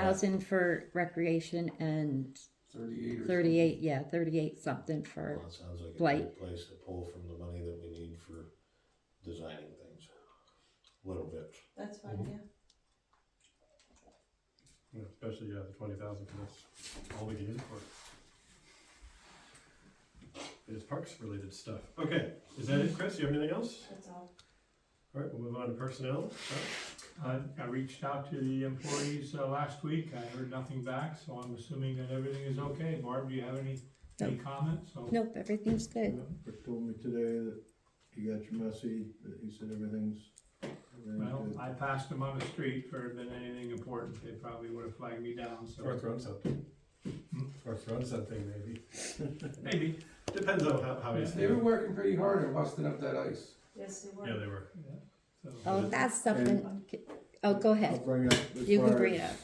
thousand for recreation and Thirty-eight or thirty-eight, yeah, thirty-eight something for, Well, it sounds like a blight. great place to pull from the money that we need for designing things. Little bit. That's fine, yeah. Yeah, Especially, yeah, the twenty thousand, because that's all we can use it for. It is parks related stuff. Okay, is that it, Chris? You have anything else? That's all. All right, we'll move on to personnel. Chuck? I, I reached out to the employees uh, last week, I heard nothing back, so I'm assuming that everything is okay. Barb, do you have any, any comments? So- nope, everything's good. Rick told me today that you got your messy, that he said everything's, Well, everything's good. I passed them on the street for been anything important, they probably would have flagged me down, Or so thrown something. Hmm? Or thrown something, maybe. maybe. Depends on how, how it's They've been doing. working pretty hard and busting up that ice. Yes, they Yeah, were. they were. yeah. So- Oh, that's something, oh, go I'll ahead, bring up as you can far bring it as- up.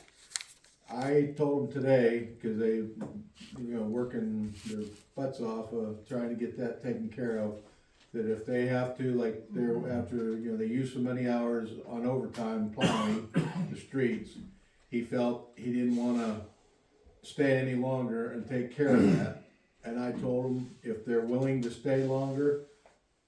I told them today, cause they, you know, working their butts off of trying to get that taken care of, that if they have to, like, they're Mm-hmm. after, you know, they use so many hours on overtime plowing the streets, he felt he didn't wanna stay any longer and take care of that. And I told him if they're willing to stay longer,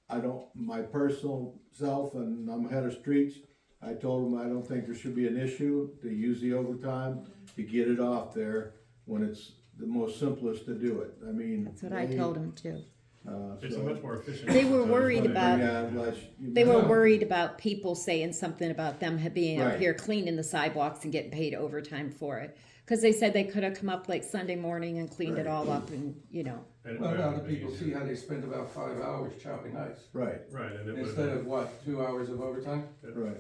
I don't, my personal self, and I'm head of streets, I told him I don't think there should be an issue to use the overtime to get it off there when it's the most simplest to do it. I mean. That's what I they, told them too. Uh, It's a so, much more efficient. They were sometimes worried when they- about- yeah, unless you- They were worried about people saying something about them ha- being up Right. here cleaning the sidewalks and getting paid overtime for it. Cause they said they could have come up like Sunday morning and cleaned it Right. all up and, you know, and it Well, would've now the been people easier. see how they spend about five hours chopping ice, Right, Right, and it would instead of what, two hours of overtime? right.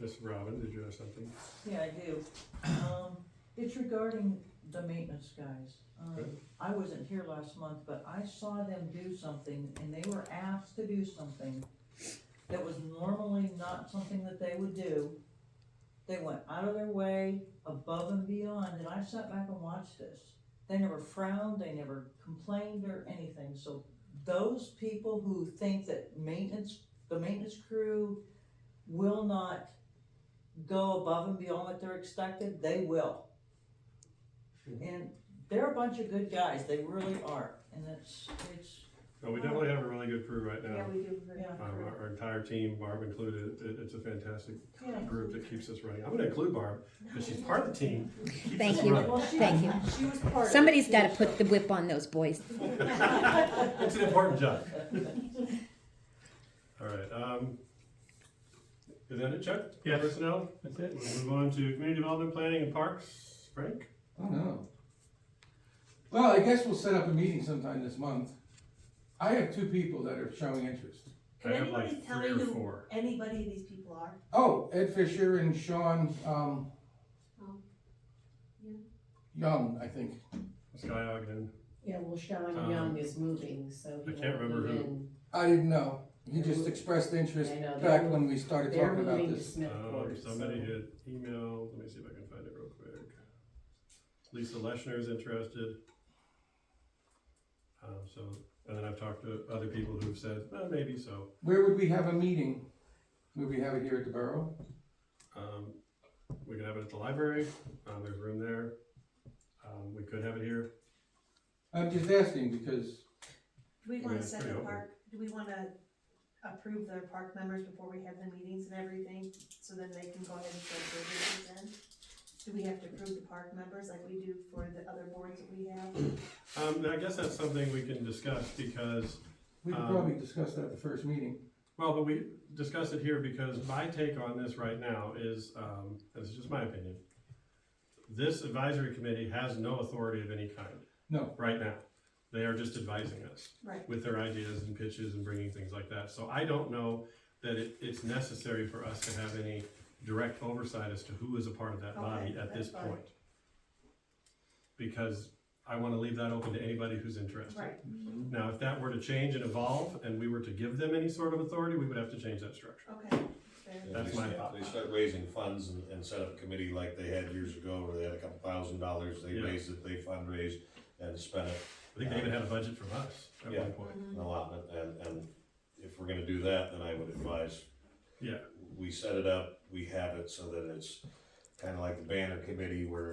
Miss Robin, did you have something? Yeah, I do. Um, it's regarding the maintenance guys. Um, Good. I wasn't here last month, but I saw them do something and they were asked to do something that was normally not something that they would do. They went out of their way, above and beyond, and I sat back and watched this. They never frowned, they never complained or anything, so those people who think that maintenance, the maintenance crew will not go above and beyond what they're expected, they will. And they're a bunch of good guys, they really are, and it's, it's, Well, we definitely have a really good crew right Yeah, now. we do. agree. Yeah. Um, our, our entire team, Barb included, it, it's a fantastic Yeah. group that keeps us running. I'm gonna include Barb, because she's part of the team. Keeps Thank us you. running. Well, she Thank was- She was part of it. somebody's She gotta was put the whip on those boys. It's an important job. All right, um, is that it, Chuck? Yes. Personnel? That's it. We'll move on to community development, planning and parks. Frank? Oh, no. Well, I guess we'll set up a meeting sometime this month. I have two people that are showing interest. Can I have like anybody tell three me or who four. anybody of these people are? Oh, Ed Fisher and Sean, um, Oh. Yeah. Young, I think. Sky Ogden. Yeah, well, Sean Um, Young is moving, so. he I can't won't be remember who. in. I didn't know. He just expressed interest I know, they're back mo- when we started They're talking about moving to this. Um, Smithport, somebody so. had emailed, let me see if I can find it real quick. Lisa Leshner is interested. Um, so, and then I've talked to other people who've said, uh, maybe so. Where would we have a meeting? Would we have it here at the Borough? Um, we could have it at the library, um, there's room there. Um, we could have it here. I'm just asking because, Do we Yeah, wanna it's set pretty the open. park, do we wanna approve their park members before we have the meetings and everything? So then they can go ahead and start their business then? Do we have to approve the park members like we do for the other boards that we have? Um, and I guess that's something we can discuss because, we could Um, probably discuss that at the first meeting. well, but we discussed it here because my take on this right now is, um, this is just my opinion. This advisory committee has no authority of any kind. No. Right now. They are just advising us. Right. with their ideas and pitches and bringing things like that. So I don't know that it, it's necessary for us to have any direct oversight as to who is a part of that body Okay, at this that's fine. point. Because I wanna leave that open to anybody who's interested. Right, Now, if that were to change and evolve, and we were to give them any sort of authority, we would have to change that structure. okay, fair. And That's they my start- thought. They start raising funds and, and set up a committee like they had years ago, where they had a couple thousand dollars, they Yeah. raised it, they fundraised and spent it, I think they even had a budget from us at Yeah. one point. Mm-hmm. an allotment, and, and if we're gonna do that, then I would advise. Yeah. We set it up, we have it so that it's kinda like the banner committee where